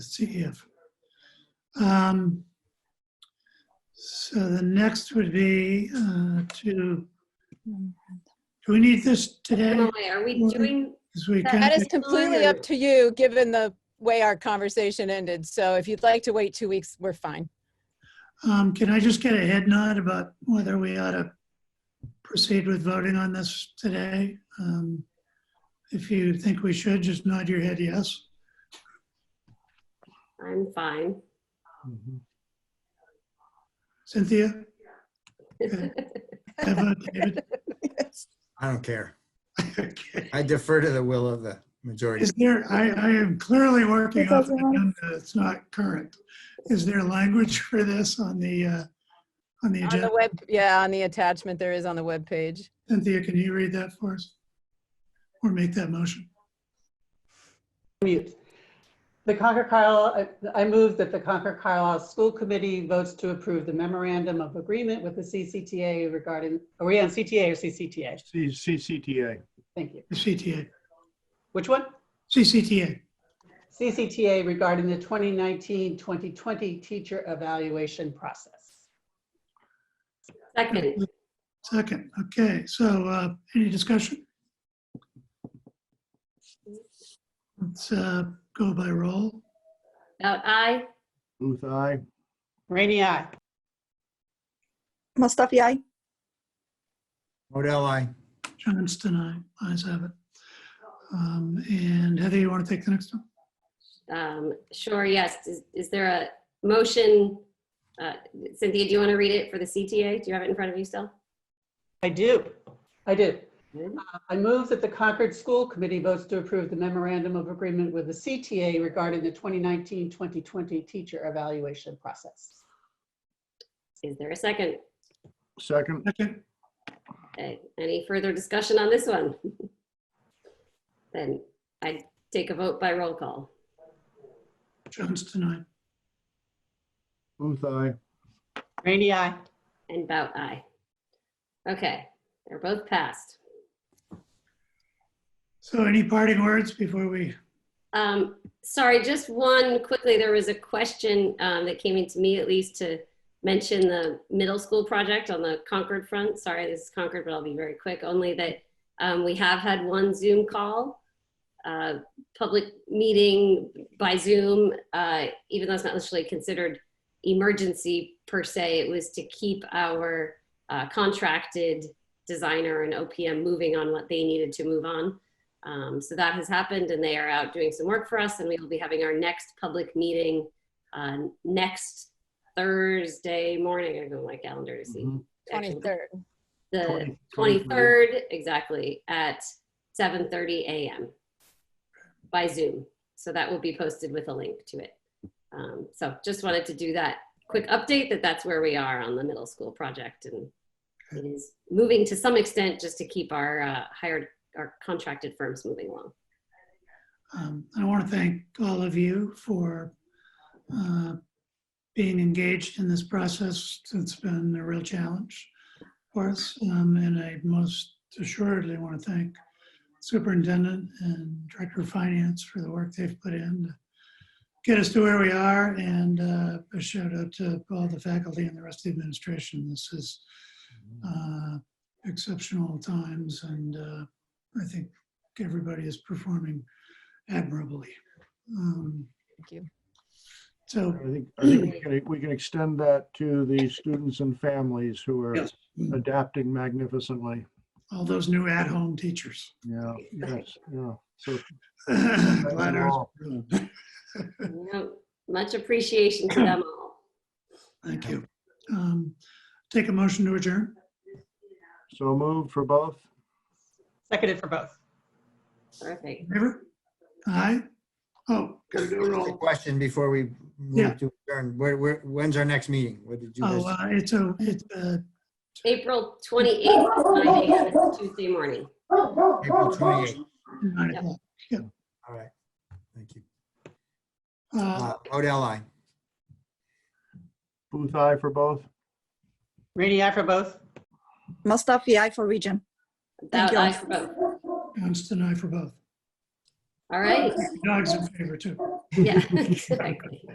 Let's see if. Um, So the next would be uh, to, do we need this today, Emily, are we Mhm. doing, this weekend? Uh, That is completely up to you, given the way our conversation ended. So if you'd like to wait two weeks, we're fine. Um, Can I just get a head nod about whether we ought to proceed with voting on this today? Um, If you think we should, just nod your head yes. I'm fine. Mm-hmm. Cynthia? Okay. I vote David. I don't care. Okay. I defer to the will of the majority. Is there, I, I am clearly working It off doesn't an agenda that's not current. Is there language for this on the, uh, on the On the agenda? web, yeah, on the attachment there is on the web page. Cynthia, can you read that for us? Or make that motion? Mute. The Concord Carlisle, I I move that the Concord Carlisle School Committee votes to approve the memorandum of agreement with the CCTA regarding, oh, are we on CTA or CCTA? C- CCTA. Thank you. The CTA, Which one? CCTA. CCTA regarding the 2019-2020 teacher evaluation process. Second, Second, okay, so uh, any discussion? Let's uh, go by roll. out aye, Booth, aye. Rainey, aye. Mustafi, aye. Modell, I. Johnston, aye, ayes have it. Um, And Heather, you want to take the next one? um, sure, yes. Is, is there a motion? uh, Cynthia, do you want to read it for the CTA? Do you have it in front of you still? I do. I do. Mhm. Uh, I move that the Concord School Committee votes to approve the memorandum of agreement with the CTA regarding the 2019-2020 teacher evaluation process. Is there a second? Second, Second, Okay, Any further discussion on this one? Then I take a vote by roll call. Johnston, aye. Booth, aye. Rainey, aye. And Bout aye. Okay, they're both passed. So any parting words before we, Um, sorry, just one quickly. There was a question um, that came into me, at least, to mention the middle school project on the Concord front. Sorry, this is Concord, but I'll be very quick. Only that um, we have had one Zoom call, uh, public meeting by Zoom, uh, even though it's not necessarily considered emergency per se. It was to keep our uh, contracted designer and OPM moving on what they needed to move on. Um, so that has happened, and they are out doing some work for us, and we will be having our next public meeting uh, next Thursday morning. I go to my calendar to see. Mhm. actually 23rd. The Twenty- 23rd, exactly, at 7:30 a.m. by Zoom. So that will be posted with a link to it. Um, So just wanted to do that quick update that that's where we are on the middle school project. And it is moving to some extent just to keep our uh, hired, our contracted firms moving along. um, I want to thank all of you for uh, being engaged in this process. It's been a real challenge for us. um, And I most assuredly want to thank Superintendent and Director of Finance for the work they've put in to get us to where we are. And uh, a shout out to all the faculty and the rest of the administration. This is uh, exceptional times and uh, I think everybody is performing admirably. Um, Thank you. So, I think, I think we can, we can extend that to the students and families who are yes, adapting magnificently. all those new at-home teachers. Yeah, yes, yeah. So Glad ours- No, Much appreciation to them all. Thank you. Um, Take a motion to adjourn. so moved for both. Seconded for both. Perfect. Favor? Aye? Oh, gotta do a The roll. question before we Yeah. move to adjourn, where, where, when's our next meeting? What did you Oh, guys? uh, it's a, it's a, April 28th, is my day, and it's Tuesday morning. April 28th. nine Yep. o'clock. All right. Thank you. Uh, Uh, Modell, I. Booth, aye for both. Rainey, aye for both. Mustafi, aye for region. Thank That you. I for both. Johnston, aye for both. All right. Dogs in favor too. Yeah, exactly.